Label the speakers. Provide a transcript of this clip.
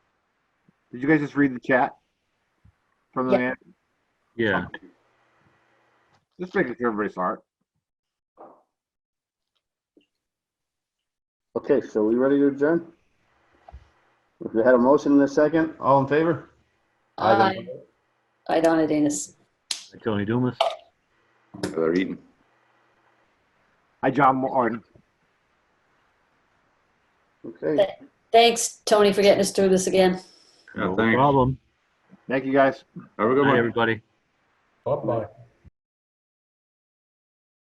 Speaker 1: Did you guys just read the chat? From the
Speaker 2: Yeah.
Speaker 1: man?
Speaker 3: Yeah,
Speaker 1: Just making sure everybody saw it.
Speaker 4: Okay, so we ready to adjourn? If you had a motion in a second, all in favor?
Speaker 2: Aye.
Speaker 4: Aye.
Speaker 2: Aye, Donna Danus.
Speaker 3: Tony Dumas.
Speaker 5: They're eating.
Speaker 1: Hi, John Martin.
Speaker 4: Okay,
Speaker 2: Thanks, Tony, for getting us through this again.
Speaker 5: Yeah,
Speaker 3: No
Speaker 5: thanks.
Speaker 3: problem.
Speaker 1: Thank you, guys.
Speaker 5: Have a good
Speaker 3: Good night,
Speaker 5: one.
Speaker 3: everybody.
Speaker 6: Bye-bye.